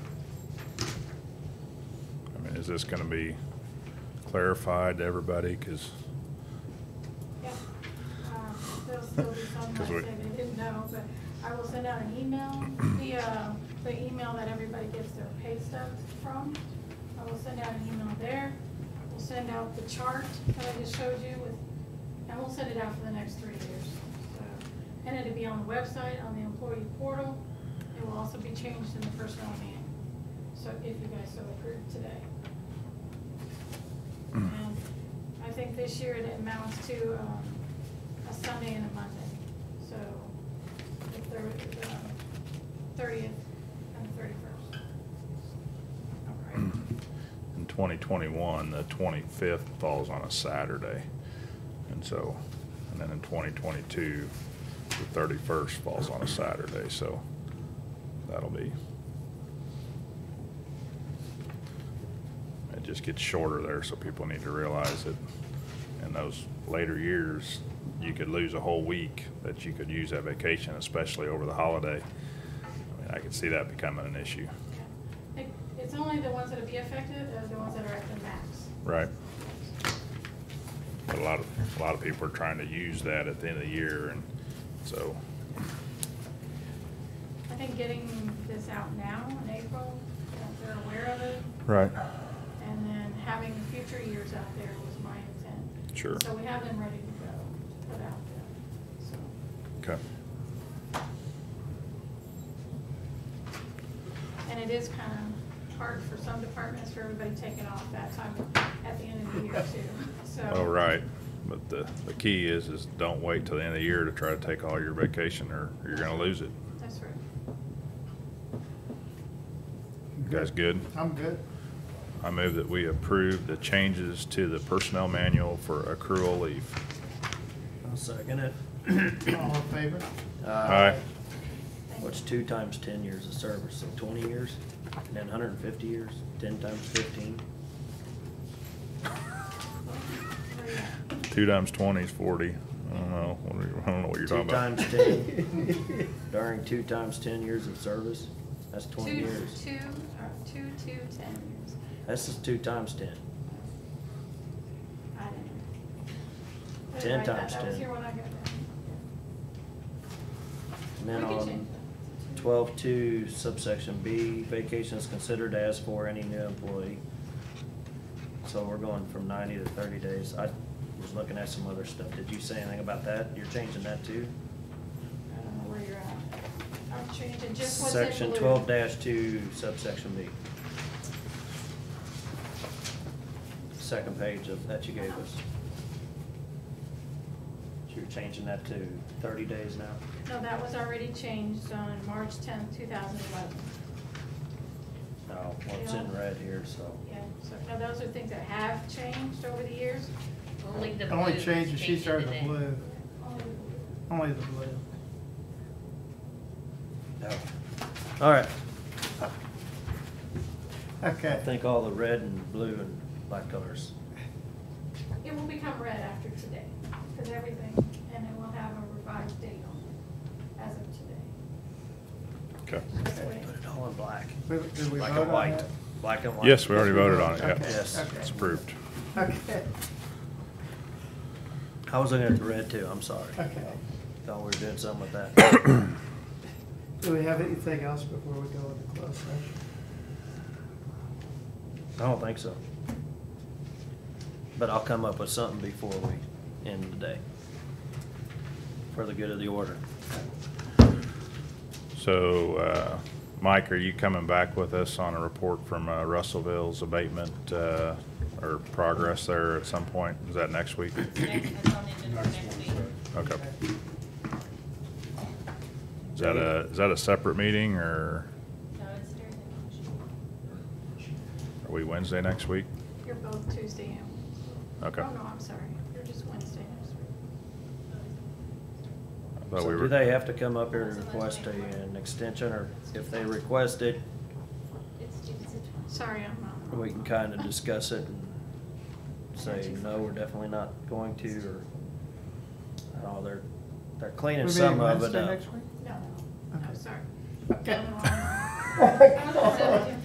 Is this gonna be clarified to everybody? Cause, Yep. Um, There'll still be some 'Cause that we- say they didn't know, but I will send out an email, the, uh, the email that everybody gets their pay stubs from. I will send out an email there. We'll send out the chart that I just showed you with, and we'll send it out for the um, next three years. So, And it'll be on the website, on the employee portal. It will also be changed in the personnel meeting. So if you guys so approve today. And Um, I think this year it amounts to um, a Sunday and a Monday. So the um, thirtieth and the thirty-first. All right. in twenty twenty-one, the twenty-fifth falls on a Saturday. And so, and then in twenty twenty-two, the thirty-first falls on a Saturday, so that'll be. It just gets shorter there, so people need to realize that in those later years, you could lose a whole week that you could use that vacation, especially over the holiday. I mean, I could see that becoming an issue, I think It's only the ones that'll be affected, are the ones that are at the max. right? But a lot of, a lot of people are trying to use that at the end of the year, and so, I think getting this out now in April, that they're aware of it, right, and then having the future years out there was my intent. Sure. So we have them ready to go, to put out there, so. okay. And it is kind of hard for some departments for everybody taking off that time at the end of the year too, so. All Oh, right, but the, the key is, is don't wait till the end of the year to try to take all your vacation, or you're gonna lose it. That's right. You guys good? I'm good. I move that we approve the changes to the personnel manual for accrual leave. I'll second it. Uh, All in favor? Aye. Thank you. What's two times ten years of service, so twenty years, and then hundred and fifty years, ten times fifteen? Where you at? Two times twenty is forty. I don't know, What are you- I don't know what you're talking about. Two times ten, during two times ten years of service, that's twenty Two- years. Two, or two, two, ten years. That's just two times ten. I didn't. I didn't Ten write that. times That was 10. here when I got there. And then We can on change that. twelve two subsection B, vacation is considered as for any new employee. So we're going from ninety to thirty days. I was looking at some other stuff. Did you say anything about that? You're changing that too? I don't know where you're at. I'm changing just what's in blue. Section twelve two subsection B. Second page of, that you gave us. So you're changing that to thirty days now? No, that was already changed on March tenth, two thousand eleven. No, well, it's in red here, so. Yeah, so now those are things that have changed over the years. Only the The blue. only change is she changed started today. the blue, Only the- only the blue. No. All right, I Okay, think all the red and blue and black colors. It will become red after today, because everything, and it will have a revised date on it as of today. Okay. That's the way- Put it all in black. did did we Black vote and on white. that? Black and white. Yes, we already voted on it, yeah. Yes. Okay, It's approved. okay, okay, I was looking at the red too, I'm sorry. okay. Thought we were doing something with that. Do we have anything else before we go into closed session? I don't think so. But I'll come up with something before we end the day. For the good of the order. So, uh, Mike, are you coming back with us on a report from uh, Russellville's abatement, uh, or progress there at some point? Is that next week? Next- That's on the agenda for next week. Okay. Is that a, is that a separate meeting, or No, it's Thursday. are we Wednesday next week? You're both Tuesday and Wednesday. Okay. Oh, no, I'm sorry, you're just Wednesday next week. I thought So we do were- they have to come up here and request a, an extension, or if they request it, It's, it's the twelfth. Sorry, I'm uh, not. we can kinda discuss it and say, no, we're definitely not going to, or, I don't know, they're, they're We're cleaning meeting some of it Wednesday up. next week? No, no, Okay. sorry. Okay. I was upset with you.